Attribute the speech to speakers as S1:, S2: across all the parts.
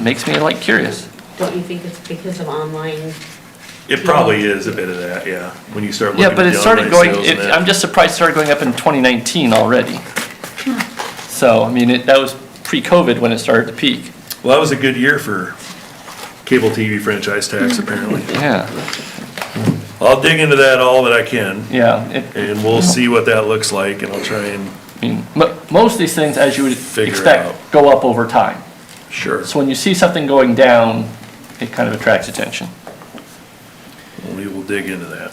S1: makes me like curious.
S2: Don't you think it's because of online?
S3: It probably is a bit of that, yeah, when you start looking
S1: Yeah,
S3: at the
S1: but
S3: online
S1: it
S3: sales.
S1: started going,
S3: and
S1: it-
S3: that.
S1: I'm just surprised it started going up in 2019 already. So, I mean, it- that was pre-COVID when it started to peak.
S3: Well, that was a good year for cable TV franchise tax,
S1: Mm-hmm.
S3: apparently.
S1: Yeah,
S3: I'll dig into that all that I can,
S1: yeah. it-
S3: and we'll see what that looks like, and I'll try and,
S1: I mean, mo- Most of these things, as you would
S3: Figure it out.
S1: expect, go up over time.
S3: sure,
S1: So when you see something going down, it kind of attracts attention.
S3: we will dig into that.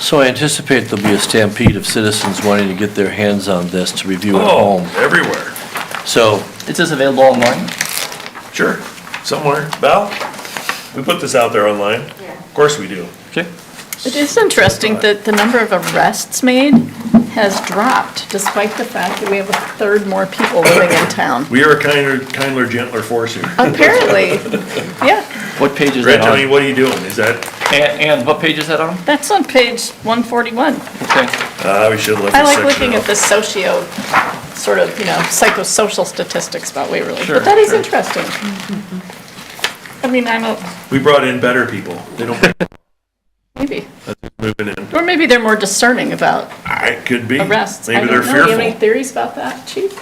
S4: So I anticipate there'll be a stampede of citizens wanting to get their hands on this to review at
S3: Oh,
S4: home.
S3: everywhere,
S4: So
S1: Is this available online?
S3: sure, somewhere. Val, we put this out there online? Of course we do.
S1: Okay.
S5: It is interesting that the number of arrests made has dropped despite the fact that we have a third more people living in town.
S3: We are a kinder, kindler, gentler force here.
S5: Apparently, yeah,
S1: What page is
S3: Grant
S1: that
S3: County,
S1: on?
S3: what are you doing? Is that,
S1: And, and what page is that on?
S5: that's on page 141.
S1: Okay.
S3: uh, we should have left
S5: I
S3: this
S5: like
S3: section
S5: looking
S3: out.
S5: at the socio, sort of, you know, psychosocial statistics about Waverly,
S1: Sure,
S5: but that is
S1: sure.
S5: interesting. I mean, I'm a,
S3: We brought in better people. They don't,
S5: maybe,
S3: moving in.
S5: or maybe they're more discerning about
S3: I could be.
S5: arrests. I
S3: Maybe they're
S5: don't know. Do you have any
S3: fearful.
S5: theories about that, chief?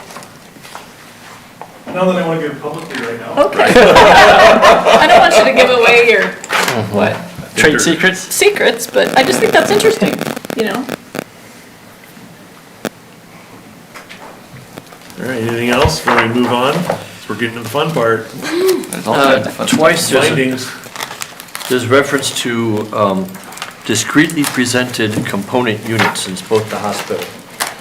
S3: Not that I want to give publicly right now.
S5: Okay. I don't want you to give away your
S1: What? Trade
S3: they're-
S1: secrets?
S5: secrets, but I just think that's interesting, you know?
S3: All right, anything else before we move on? 'Cause We're getting to the fun part,
S1: There's all kinds of fun-
S4: twice there's, a-
S3: findings.
S4: there's reference to um, discreetly presented component units in both the hospital.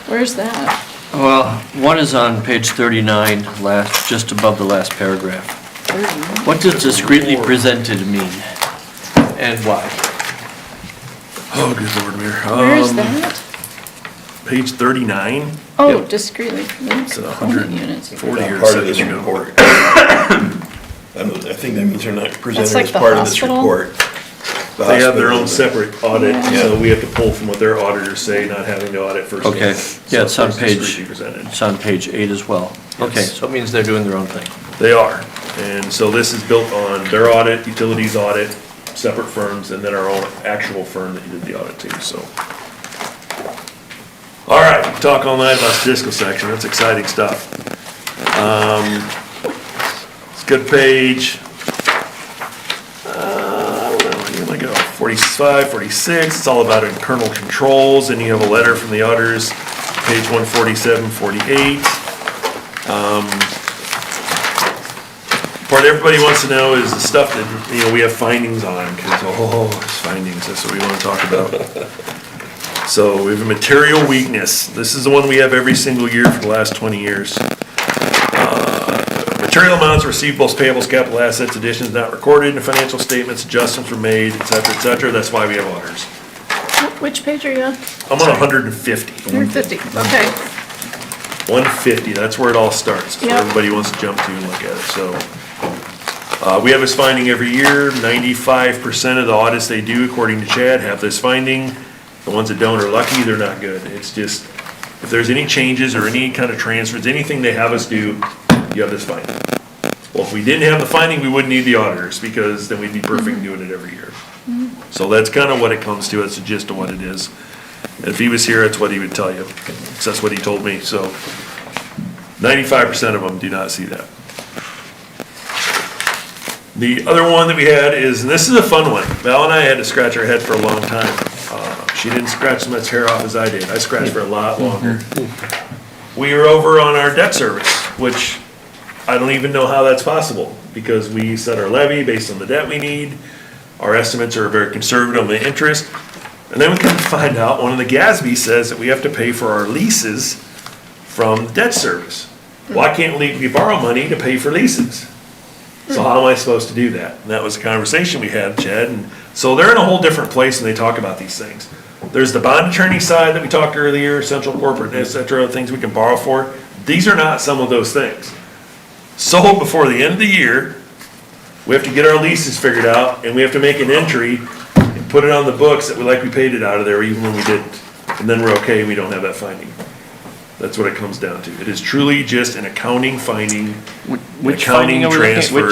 S5: Where's that?
S4: Well, one is on page 39, last, just above the last paragraph. What does discreetly presented mean? And why?
S3: Oh, good lord, Mayor.
S5: Where is
S3: Um,
S5: that?
S3: Page thirty-nine,
S5: Oh, discreetly,
S3: it's a
S5: component
S3: hundred
S5: units.
S3: and forty or
S6: part of this
S3: something.
S6: report. I don't- I think that means they're not presented
S5: like
S6: as
S5: the
S6: part of this
S5: hospital?
S6: report. The
S3: They have their
S6: hospital.
S3: own separate audit,
S5: Yeah.
S3: so we have to pull from what their auditors say, not having to audit first.
S4: Okay. Yeah, it's on
S3: it's
S4: page-
S3: discreetly presented.
S4: It's on page eight as well. Okay,
S3: Yes.
S4: so it means they're doing their own thing.
S3: They are, and so this is built on their audit, utilities audit, separate firms, and then our own actual firm that did the audit too, so. All right, we talk all night about statistical section, that's exciting stuff. Um, It's a good page. Uh, where am I gonna go? Forty-five, forty-six, it's all about internal controls, and you have a letter from the auditors, page one forty-seven, forty-eight. part everybody wants to know is the stuff that, you know, we have findings on, because, oh, it's findings, that's what we want to talk about. So we have a material weakness. This is the one we have every single year for the last 20 years. Uh, Material amounts, receivables, payables, capital assets, additions not recorded in the financial statements, adjustments were made, et cetera, et cetera. That's why we have auditors.
S5: Which page are you on?
S3: I'm on 150.
S5: 150, okay.
S3: 150, that's where it all starts. That's where
S5: Yep.
S3: Everybody wants to jump to and look at it, so. Uh, we have this finding every year, 95% of the audits they do, according to Chad, have this finding. The ones that don't are lucky, they're not good. It's just, if there's any changes or any kind of transfers, anything they have us do, you have this finding. Well, if we didn't have the finding, we wouldn't need the auditors, because then we'd be perfect doing it every year. So that's kind of what it comes to, that's the gist of what it is. If he was here, that's what he would tell you, 'cause that's what he told me, so. Ninety-five percent of them do not see that. The other one that we had is, and this is a fun one, Val and I had to scratch our head for a long time. Uh, She didn't scratch as much hair off as I did, I scratched for a lot longer. We were over on our debt service, which I don't even know how that's possible, because we set our levy based on the debt we need. Our estimates are very conservative on the interest, and then we come to find out, one of the GASB says that we have to pay for our leases from debt service. Why can't we we borrow money to pay for leases? So how am I supposed to do that? And that was a conversation we had, Chad, and so they're in a whole different place when they talk about these things. There's the bond attorney side that we talked earlier, central corporate, et cetera, things we can borrow for. These are not some of those things. So before the end of the year, we have to get our leases figured out, and we have to make an entry and put it on the books that we, like we paid it out of there even when we didn't. And then we're okay, we don't have that finding.
S4: That's what it comes down to. It is truly just an accounting finding,
S3: Which finding
S4: accounting
S3: are we looking at? Which-
S4: transfer.